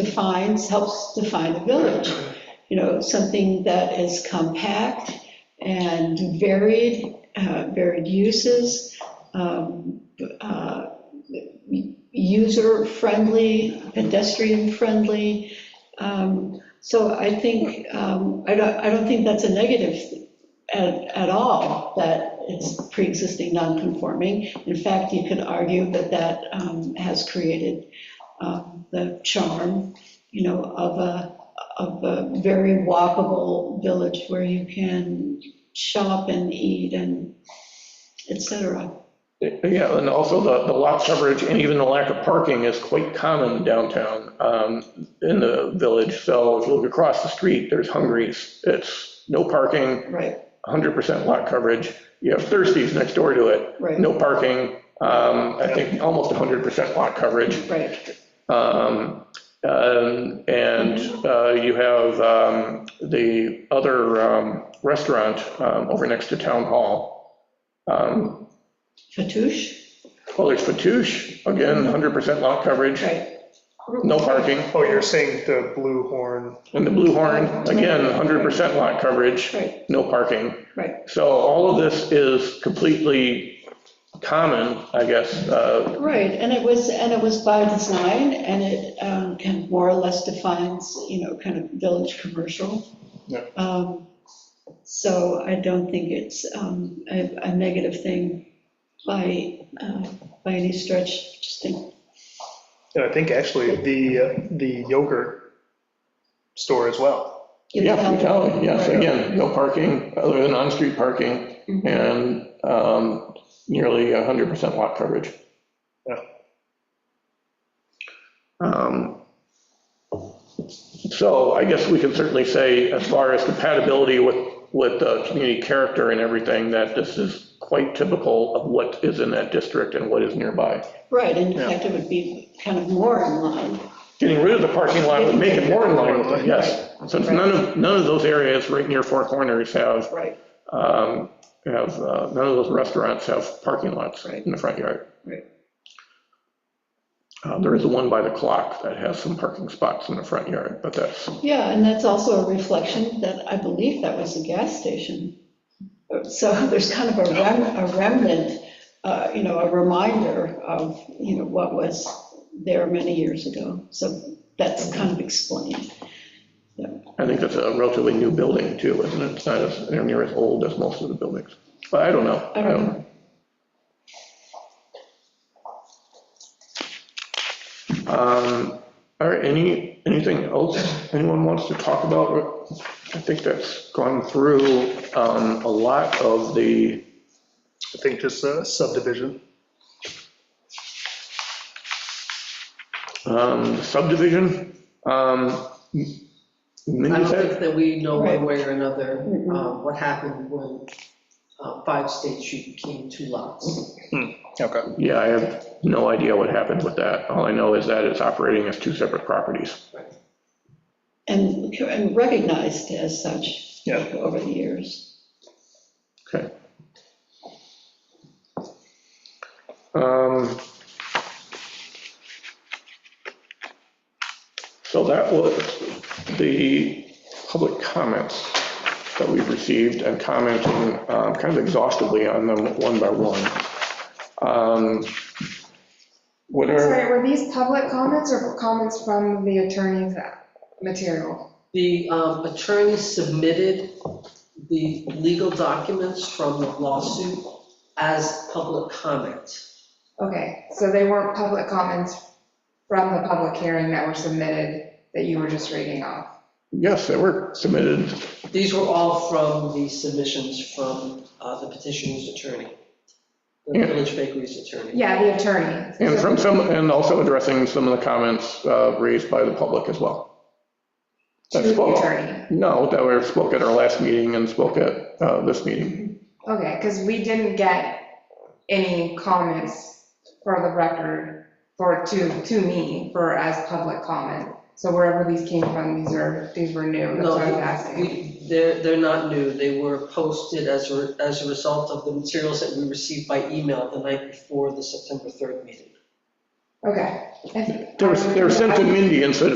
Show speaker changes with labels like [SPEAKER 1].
[SPEAKER 1] defines, helps define a village. You know, something that is compact and varied, uh, varied uses, um, uh, user-friendly, pedestrian-friendly. Um, So I think, um, I don't, I don't think that's a negative at, at all, that it's pre-existing non-conforming. In fact, you could argue that that um, has created um, the charm, you know, of a, of a very walkable village where you can shop and eat and et cetera.
[SPEAKER 2] Yeah, and also the, the lot coverage and even the lack of parking is quite common downtown, um, in the village. So if you look across the street, there's Hungries. It's no parking,
[SPEAKER 1] Right,
[SPEAKER 2] 100% lot coverage. You have Thirsties next door to it,
[SPEAKER 1] right,
[SPEAKER 2] no parking, um, I think almost 100% lot coverage.
[SPEAKER 1] right,
[SPEAKER 2] Um, um, And uh, you have um, the other um, restaurant um, over next to Town Hall. Um,
[SPEAKER 1] Fatouche,
[SPEAKER 2] Well, there's Fatouche, again, 100% lot coverage,
[SPEAKER 1] right,
[SPEAKER 2] no parking.
[SPEAKER 3] Oh, you're saying the Blue Horn,
[SPEAKER 2] And the Blue Horn, again, 100% lot coverage,
[SPEAKER 1] right,
[SPEAKER 2] no parking.
[SPEAKER 1] right,
[SPEAKER 2] So all of this is completely common, I guess, uh,
[SPEAKER 1] right. And it was, and it was by design, and it um, kind of more or less defines, you know, kind of village commercial.
[SPEAKER 3] Yeah.
[SPEAKER 1] Um, So I don't think it's um, a, a negative thing by, uh, by any stretch, just think,
[SPEAKER 3] and I think actually the, uh, the yogurt store as well.
[SPEAKER 1] you
[SPEAKER 2] Yeah,
[SPEAKER 1] know,
[SPEAKER 2] Frutality, yes,
[SPEAKER 1] Right.
[SPEAKER 2] again, no parking, other than on-street parking,
[SPEAKER 1] Mhm.
[SPEAKER 2] and um, nearly 100% lot coverage.
[SPEAKER 3] Yeah.
[SPEAKER 2] Um, So I guess we can certainly say, as far as compatibility with, with uh, community character and everything, that this is quite typical of what is in that district and what is nearby.
[SPEAKER 1] right, and in
[SPEAKER 3] Yeah.
[SPEAKER 1] fact, it would be kind of more in line.
[SPEAKER 2] Getting rid of the parking lot would make it more in line with it, yes. Since none of, none of those areas right near Four Corners have
[SPEAKER 1] Right,
[SPEAKER 2] um, have, uh, none of those restaurants have parking lots
[SPEAKER 1] Right.
[SPEAKER 2] in the front yard.
[SPEAKER 1] right,
[SPEAKER 2] Uh, There is the one by the clock that has some parking spots in the front yard, but that's,
[SPEAKER 1] yeah, and that's also a reflection that I believe that was a gas station. So there's kind of a rem, a remnant, uh, you know, a reminder of, you know, what was there many years ago, so that's kind of explained.
[SPEAKER 2] I think that's a relatively new building too, isn't it? It's not as, they're near as old as most of the buildings. But I don't know.
[SPEAKER 1] I don't know.
[SPEAKER 2] Um, All right, any, anything else anyone wants to talk about? I think that's gone through um, a lot of the
[SPEAKER 3] I think just a subdivision.
[SPEAKER 2] um, subdivision. um, m-
[SPEAKER 4] I
[SPEAKER 2] mini
[SPEAKER 4] don't
[SPEAKER 2] set?
[SPEAKER 4] think that we know
[SPEAKER 1] Right.
[SPEAKER 4] one way or another
[SPEAKER 1] Mhm.
[SPEAKER 4] um, what happened when uh, Five State Street became two lots.
[SPEAKER 3] Okay.
[SPEAKER 2] Yeah, I have no idea what happened with that. All I know is that it's operating as two separate properties.
[SPEAKER 1] And, and recognized as such
[SPEAKER 3] Yeah.
[SPEAKER 1] over the years.
[SPEAKER 2] Okay. Um, So that was the public comments that we've received and commenting um, kind of exhaustively on them one by one. Um, What are?
[SPEAKER 5] Sorry, were these public comments or comments from the attorney's material?
[SPEAKER 4] The um, attorney submitted the legal documents from the lawsuit as public comment.
[SPEAKER 5] Okay, so they weren't public comments from the public hearing that were submitted that you were just reading off?
[SPEAKER 2] Yes, they were submitted.
[SPEAKER 4] These were all from the submissions from uh, the petitioner's attorney, the
[SPEAKER 2] Yeah.
[SPEAKER 4] Village Bakery's attorney.
[SPEAKER 5] Yeah, the attorney.
[SPEAKER 2] And
[SPEAKER 5] So-
[SPEAKER 2] from some, and also addressing some of the comments uh, raised by the public as well.
[SPEAKER 5] To
[SPEAKER 2] That
[SPEAKER 5] the
[SPEAKER 2] spoke,
[SPEAKER 5] attorney.
[SPEAKER 2] no, that were spoke at our last meeting and spoke at uh, this meeting.
[SPEAKER 5] Okay, because we didn't get any comments for the record, for, to, to me, for as public comment. So wherever these came from, these are, these were new, that's
[SPEAKER 4] No,
[SPEAKER 5] what I'm asking.
[SPEAKER 4] we- They're, they're not new, they were posted as, a- as a result of the materials that we received by email the night before the September 3rd meeting.
[SPEAKER 5] Okay. I-
[SPEAKER 2] They were they were sent to Mindy instead of